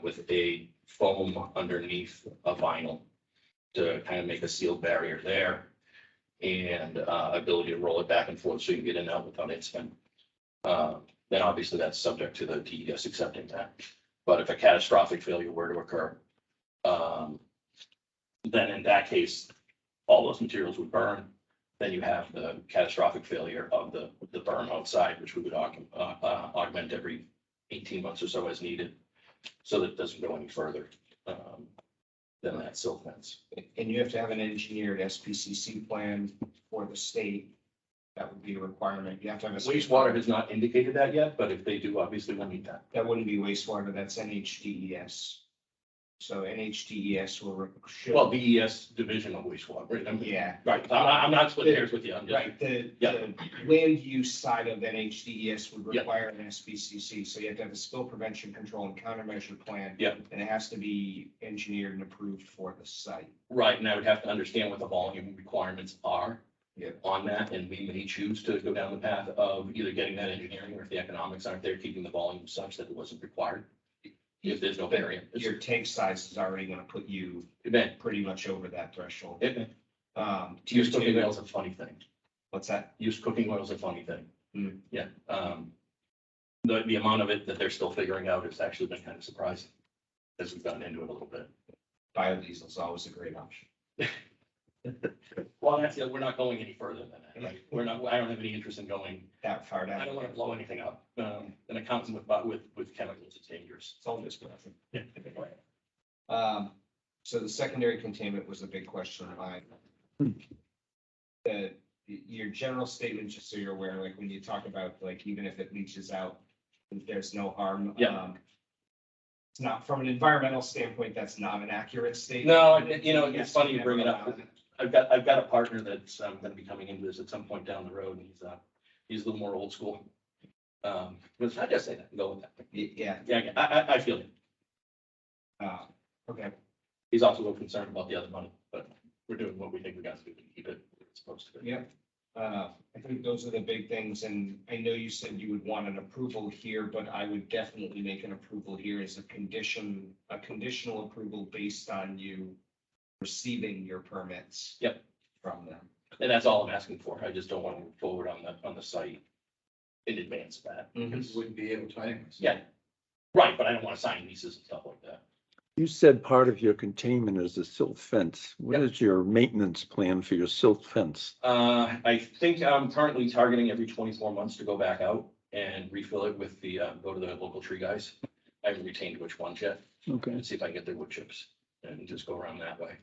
with a foam underneath a vinyl to kind of make a seal barrier there and uh, ability to roll it back and forth so you can get in and out without incident. Uh, Then obviously that's subject to the DES accepting that. But if a catastrophic failure were to occur, um, then in that case, all those materials would burn. Then you have the catastrophic failure of the, the burn outside, which we would aug- uh, uh, augment every eighteen months or so as needed. So that it doesn't go any further um, than that silt fence. And you have to have an engineered SPCC plan for the state. That would be a requirement. You have to have a. Wastewater has not indicated that yet, but if they do, obviously we'll need that. That wouldn't be wastewater, that's NHDES. E So NHDES E will. re- should- Well, BES division of wastewater, right? I'm- Yeah, Right, I'm not, I'm not splitting hairs with you, I'm just, right, the, Yeah. the land use side of NHDES E would Yeah. require an SPCC, so you have to have a spill prevention control and countermeasure plan. Yeah. And it has to be engineered and approved for the site. right, and I would have to understand what the volume requirements are. Yeah. On that, and we may choose to go down the path of either getting that engineering, or if the economics aren't there, keeping the volume such that it wasn't required. If there's no variant, Your tank size is already gonna put you event, pretty much over that threshold. event, Um, tier use cooking two, oil's a funny thing. what's that? use cooking oil is a funny thing. Hmm. Yeah, um, the, the amount of it that they're still figuring out has actually been kind of surprising as we've gotten into it a little bit. Biodiesel is always a great option. Well, that's, it, we're not going any further than that, right? We're not, I don't have any interest in going, That far down. I don't want to blow anything up. Um, an accountant with, but with, with chemicals, it's dangerous. It's all just nothing. Yeah. Um, so the secondary containment was a big question of mine. The, your general statement, just so you're aware, like when you talk about like even if it leaches out, there's no harm. Yeah. um, It's not, from an environmental standpoint, that's not an accurate statement. No, and, you know, it's Yes, funny you never bring it up. allow that. I've got, I've got a partner that's, um, gonna be coming into this at some point down the road and he's, uh, he's a little more old school. Um, but I just say that, go with that. Y- Yeah, Yeah, I, I, I feel you. uh, okay, He's also a little concerned about the other money, but we're doing what we think we got to do to keep it where it's supposed to be. yeah. Uh, I think those are the big things, and I know you said you would want an approval here, but I would definitely make an approval here as a condition, a conditional approval based on you receiving your permits. Yep. From them. And that's all I'm asking for. I just don't want to move forward on the, on the site in advance of that. Because wouldn't be able to anyways. Yeah. Right, but I don't want to sign leases and stuff like that. You said part of your containment is the silt fence. What Yep. is your maintenance plan for your silt fence? Uh, I think I'm currently targeting every twenty-four months to go back out and refill it with the, uh, go to the local tree guys. I haven't retained which ones yet, Okay. and see if I can get their wood chips and just go around that way.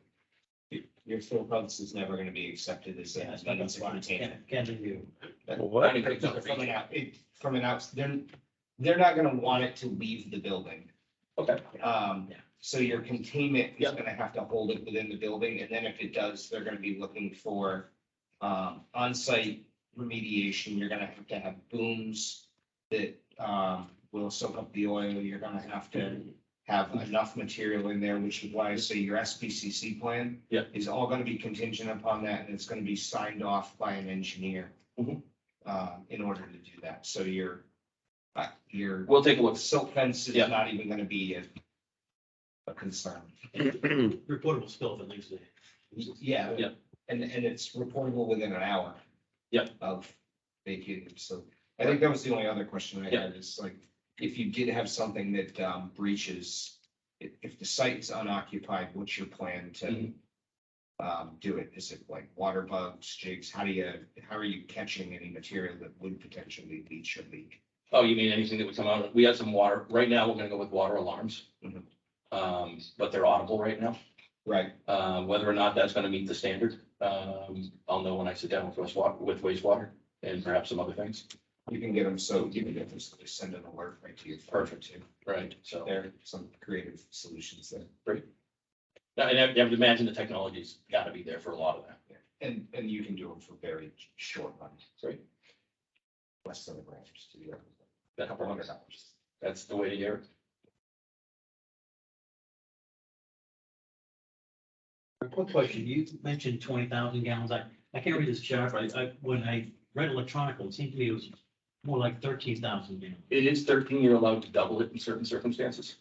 Your fill pumps is never gonna be accepted as, as maintenance of containment. I What? mean, it's not a From an reach. out, it, from an outs, they're, they're not gonna want it to leave the building. Okay, Um, Yeah. so your containment is Yeah. gonna have to hold it within the building, and then if it does, they're gonna be looking for um, onsite remediation, you're gonna have to have booms that um, will soak up the oil, you're gonna have to have enough material in there, which is why I say your SPCC plan Yeah. is all gonna be contingent upon that, and it's gonna be signed off by an engineer Mhm. uh, in order to do that, so your uh, your we'll take a look. silt fence is Yeah. not even gonna be a, a concern. reportable spill that leaves the. Yeah. Yeah. And, and it's reportable within an hour. Yeah. Of vacating, so I think that was the only other question I Yeah. had, is like, if you did have something that um, breaches, if, if the site's unoccupied, what's your plan to Mhm. um, do it? Is it like water bugs, jigs? How do you, how are you catching any material that would potentially leach or leak? Oh, you mean anything that would come out? We had some water. Right now, we're gonna go with water alarms. Mhm. Um, but they're audible right now. Right, Uh, whether or not that's gonna meet the standard, um, I'll know when I sit down with wastewater, with wastewater and perhaps some other things. you can get them, so you can get them, so they send an alert right to your phone Perfect. too. Right. So, there are some creative solutions there. and I I would imagine the technology's gotta be there for a lot of that. And, and you can do them for very short money. Right. Less than a grand, just do that. a couple hundred That's, dollars. that's the way to hear it. One question, you mentioned twenty thousand gallons, I, I can't read this chart, but I, when I read electronically, it seemed to me it was more like thirteen thousand gallons. It is thirteen, you're allowed to double it in certain circumstances.